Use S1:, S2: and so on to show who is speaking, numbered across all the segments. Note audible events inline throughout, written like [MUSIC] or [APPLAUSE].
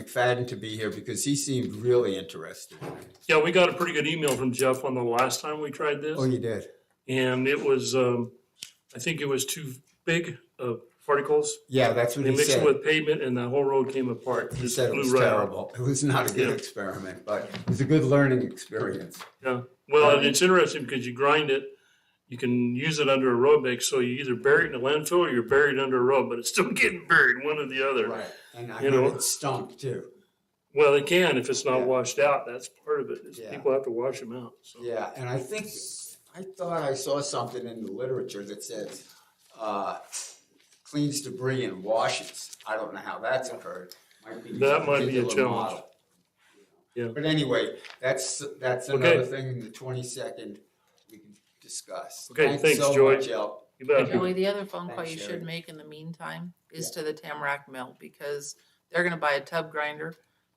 S1: McFadden to be here because he seemed really interested.
S2: Yeah, we got a pretty good email from Jeff on the last time we tried
S1: Oh,
S2: this.
S1: you did?
S2: And it was, um, I think it was too big of particles.
S1: Yeah, that's what
S2: They
S1: he
S2: mixed it
S1: said.
S2: with pavement and the whole road came apart.
S1: He
S2: Just
S1: said it
S2: blew
S1: was
S2: right out.
S1: terrible. It was not a good
S2: Yeah.
S1: experiment, but it was a good learning experience.
S2: Yeah, well, and it's interesting because you grind it, you can use it under a road mix, so you either bury it in a landfill or you're buried under a road, but it's still [LAUGHS] getting buried, one or the other.
S1: Right, and I
S2: You
S1: heard
S2: know.
S1: it stunk too.
S2: Well, it can if it's not
S1: Yeah.
S2: washed out, that's part of it, is
S1: Yeah.
S2: people have to wash them out, so.
S1: Yeah, and I think, I thought I saw something in the literature that says, uh, cleans debris and washes. I don't know how that's occurred. Might be
S2: That might be a
S1: particular
S2: challenge.
S1: model.
S2: Yeah.
S1: But anyway, that's, that's
S2: Okay.
S1: another thing, the twenty-second, we can discuss.
S2: Okay, thanks,
S1: so
S2: Joy.
S1: much, El.
S2: You bet.
S3: Joey, the other phone call
S1: Thanks,
S3: you
S1: Sherry.
S3: should make in the meantime is to the Tamarack Mill because they're gonna buy a tub grinder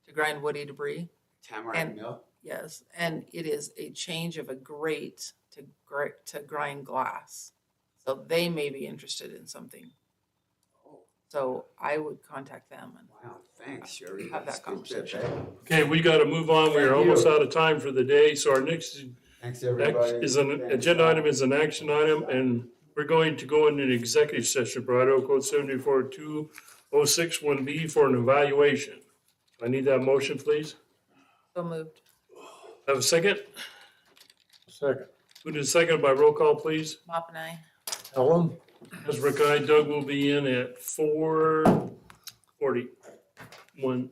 S3: to grind woody debris.
S1: Tamarack
S3: And-
S1: Mill,
S3: Yes, and it is a change of a grate to gr- to grind glass. So they may be interested in something. So I would contact them and
S1: wow, thanks, Sherry.
S3: Have that
S1: That's good tip,
S3: conversation.
S1: eh?
S2: Okay, we gotta move on,
S1: Thank
S2: we're almost
S1: you.
S2: out of time for the day, so our next
S1: Thanks,
S2: act
S1: everybody.
S2: is an
S1: Thanks,
S2: agenda
S1: Al.
S2: item, is an action item, and we're going to go into an executive session, Colorado Code seventy-four two oh six one B for an evaluation. I need that motion, please.
S3: so moved.
S2: Have a second?
S4: Second.
S2: Moved and seconded by roll call, please.
S3: Mop and I.
S4: Ellen?
S2: Ezra Guy, Doug will be in at four forty-one